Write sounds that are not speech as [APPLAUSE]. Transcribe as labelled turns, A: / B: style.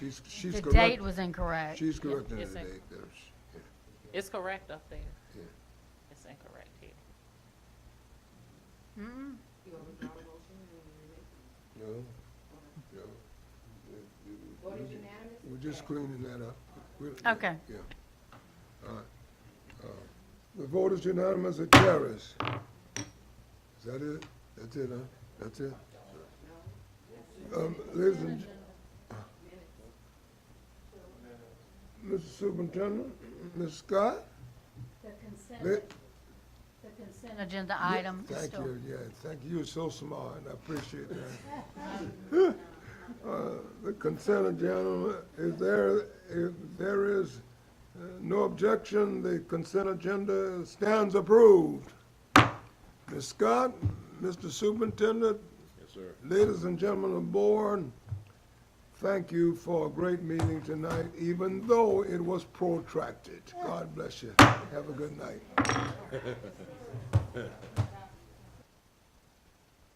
A: She's, she's
B: The
A: correct.
B: date was incorrect.
A: She's correct in the
C: Yes, sir.
A: date, there's, yeah.
C: It's correct up there.
A: Yeah.
C: It's incorrect here.
A: Mm-hmm.
B: Mm-mm.
A: No, no. We're just cleaning that up. We're-
B: Okay.
A: Yeah. All right. Uh, The vote is unanimous, it carries. Is that it? That's it, huh? That's it? Um, ladies and... gen- Mr. Superintendent, Ms. Scott?
B: The consent,
A: let-
B: the consent agenda item is
A: Thank
B: still.
A: you, yeah, thank you, you're so smart, and I appreciate that.
B: [LAUGHS]
A: Uh, The consent agenda, if there, if there is uh, no objection, the consent agenda stands approved. Ms. Scott, Mr. Superintendent. Yes, sir. Ladies and gentlemen of the board, thank you for a great meeting tonight, even though it was protracted. God bless you. Have a good night.